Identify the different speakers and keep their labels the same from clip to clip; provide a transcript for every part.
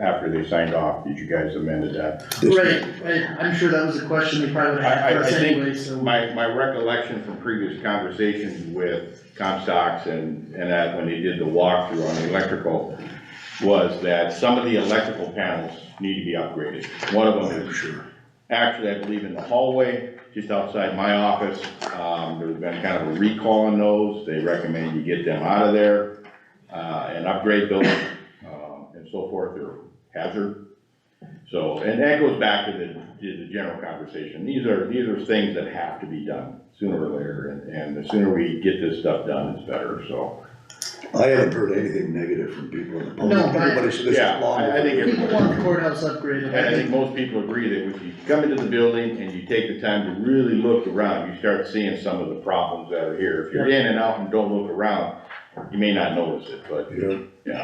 Speaker 1: after they signed off, that you guys amended that.
Speaker 2: this
Speaker 3: Right, right, I'm sure that was a question they probably would
Speaker 1: I- I-
Speaker 3: have
Speaker 1: I
Speaker 3: asked
Speaker 1: think
Speaker 3: anyway, so.
Speaker 1: My, my recollection from previous conversations with Comstocks and, and that, when they did the walkthrough on the electrical, was that some of the electrical panels need to be upgraded. One of them
Speaker 2: I'm
Speaker 1: is
Speaker 2: sure.
Speaker 1: actually, I believe in the hallway, just outside my office. Um, there's been kind of a recall on those, they recommend you get them out of there, uh, and upgrade those, um, and so forth, they're hazard. So, and that goes back to the, to the general conversation, these are, these are things that have to be done sooner or later, and, and the sooner we get this stuff done, it's better, so.
Speaker 2: I haven't heard anything negative from people in the public.
Speaker 3: No, but-
Speaker 2: Everybody said this
Speaker 1: Yeah,
Speaker 2: is long.
Speaker 1: I- I think it-
Speaker 3: People want the courthouse upgraded,
Speaker 1: And I
Speaker 3: I
Speaker 1: think
Speaker 3: think,
Speaker 1: most people agree that if you come into the building and you take the time to really look around, you start seeing some of the problems that are here. If you're in and out and don't look around, you may not notice it, but
Speaker 2: You know,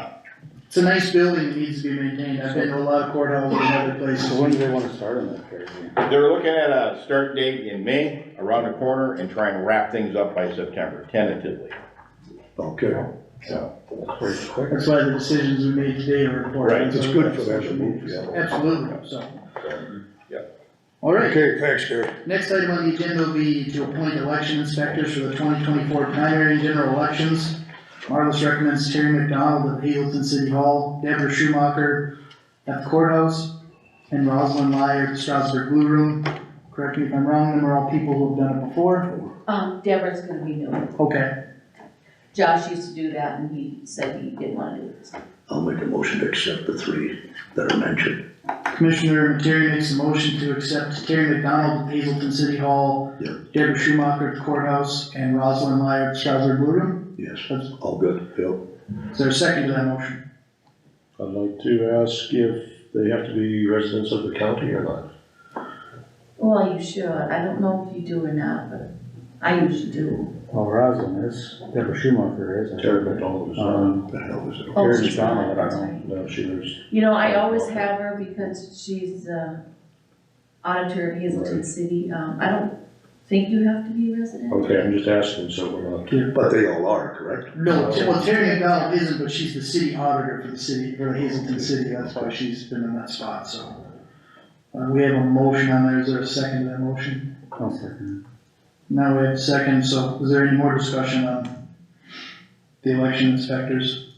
Speaker 3: it's a nice building, it needs to be maintained, I've been to a lot of courthouses in other places.
Speaker 4: So when do they wanna start on that, Terry?
Speaker 1: they're looking at a start date in May, around the corner, and trying to wrap things up by September tentatively.
Speaker 2: okay,
Speaker 1: So,
Speaker 4: Pretty quick.
Speaker 3: That's why the decisions we made today are important.
Speaker 1: Right.
Speaker 2: it's good for them to move, yeah.
Speaker 3: Absolutely, so.
Speaker 1: yeah.
Speaker 3: All right,
Speaker 2: Okay, thanks, Gary.
Speaker 3: Next item on the agenda will be to appoint election inspectors for the twenty twenty-four primary and general elections. Marlis recommends Terry McDonald of Hazelton City Hall, Deborah Schumacher at the courthouse, and Rosalind Lyer at the Strasburg Blue Room. Correct me if I'm wrong, them are all people who've done it before.
Speaker 5: Um, Deborah's gonna be new.
Speaker 3: Okay,
Speaker 5: Josh used to do that and he said he didn't wanna do it.
Speaker 2: I'll make a motion to accept the three that are mentioned.
Speaker 3: Commissioner Terry makes a motion to accept Terry McDonald at Hazelton City Hall,
Speaker 2: Yeah.
Speaker 3: Deborah Schumacher at the courthouse, and Rosalind Lyer at the Strasburg Blue Room.
Speaker 2: Yes,
Speaker 3: That's-
Speaker 2: all good, Phil.
Speaker 3: Is there a second to that motion?
Speaker 6: I'd like to ask if they have to be residents of the county or not.
Speaker 5: Well, you should. I don't know if you do or not, but I usually do.
Speaker 4: Well, Roslin is, Deborah Schumacher is. I think.
Speaker 6: Terry McDonald is not.
Speaker 4: Um,
Speaker 2: Uh, The hell is it?
Speaker 5: Oh,
Speaker 4: Terry
Speaker 5: she's
Speaker 4: McDonald,
Speaker 5: not,
Speaker 4: I don't
Speaker 5: sorry.
Speaker 4: know.
Speaker 6: No, she was,
Speaker 5: You know, I always have her because she's the auditor of Hazelton
Speaker 6: Right.
Speaker 5: City. Um, I don't think you have to be
Speaker 4: Oh,
Speaker 5: resident.
Speaker 6: okay, I'm just asking, so we're not.
Speaker 2: But they all are, correct?
Speaker 3: No, Ter- well, Terry McDonald isn't, but she's the city auditor for the city, for Hazelton City, that's why she's been in that spot, so. Uh, we have a motion on there, is there a second to that motion?
Speaker 4: I'll second
Speaker 3: Now we have a second, so is there any more discussion on the election inspectors?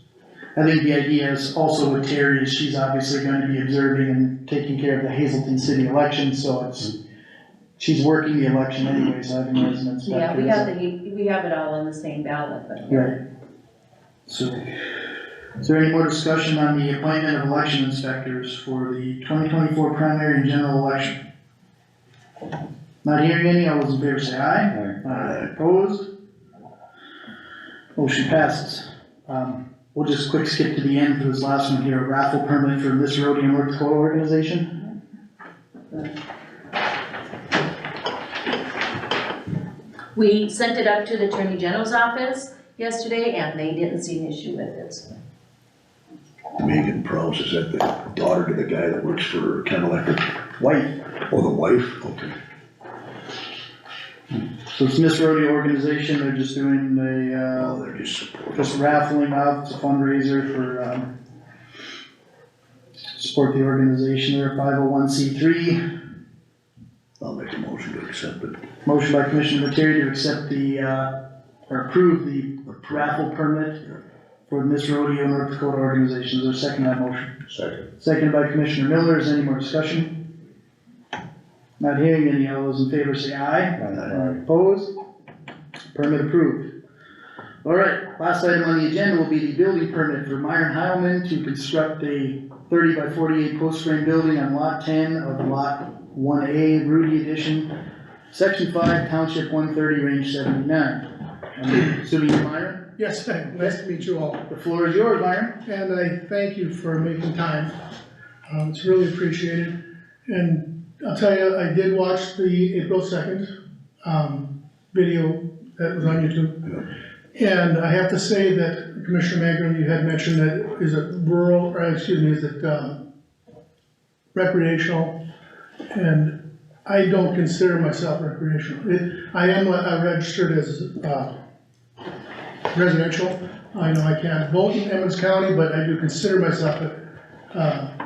Speaker 3: I think the idea is also with Terry, is she's obviously gonna be observing and taking care of the Hazelton City election, so it's, she's working the election anyways, I think as an inspector.
Speaker 5: Yeah, we
Speaker 3: is-
Speaker 5: have the, we have it all on the same ballot, but.
Speaker 3: Right. So, is there any more discussion on the appointment of election inspectors for the twenty twenty-four primary and general election? Not hearing any, all those in favor say aye.
Speaker 4: it.
Speaker 3: Aye. Opposed? Motion passes. Um, we'll just quick skip to the end for this last one here, raffle permit for this road and work co organization.
Speaker 5: We sent it up to the Attorney General's office yesterday and they didn't see an issue with it.
Speaker 2: Megan Prowse, is that the daughter to the guy that works for Ken Electric?
Speaker 3: White,
Speaker 2: Oh, the wife? Okay.
Speaker 3: so it's Miss Rodeo Organization, they're just doing the, uh,
Speaker 2: Oh, they're just supportive.
Speaker 3: just raffling off it's a fundraiser for, um, support the organization, they're five oh one C three.
Speaker 2: I'll make a motion to accept it.
Speaker 3: Motion by Commissioner Materi to accept the, uh, or approve the raffle permit for the Miss Rodeo North Dakota Organization, is there a second to that motion?
Speaker 6: Second.
Speaker 3: Second by Commissioner Miller, is there any more discussion? Not hearing any, all those in favor say aye.
Speaker 4: Aye.
Speaker 3: Opposed? Permit approved. All right, last item on the agenda will be the building permit for Myron Heilman to construct a thirty by forty-eight post frame building on lot ten of lot one A, Rudy Edition, section five, township one thirty, range seventy-nine. I'm Assuming you're Myron,
Speaker 7: Yes, ma'am. nice to meet you all,
Speaker 3: the floor is yours, Myron.
Speaker 7: and I thank you for making time. Uh, It's really appreciated, and I'll tell you, I did watch the April second um, video that was on YouTube. And I have to say that Commissioner Magrum, you had mentioned that is it rural, or excuse me, is it um, recreational? And I don't consider myself recreational. It- I am uh, registered as uh, residential. I know I can't vote in Emmons County, but I do consider myself a Uh,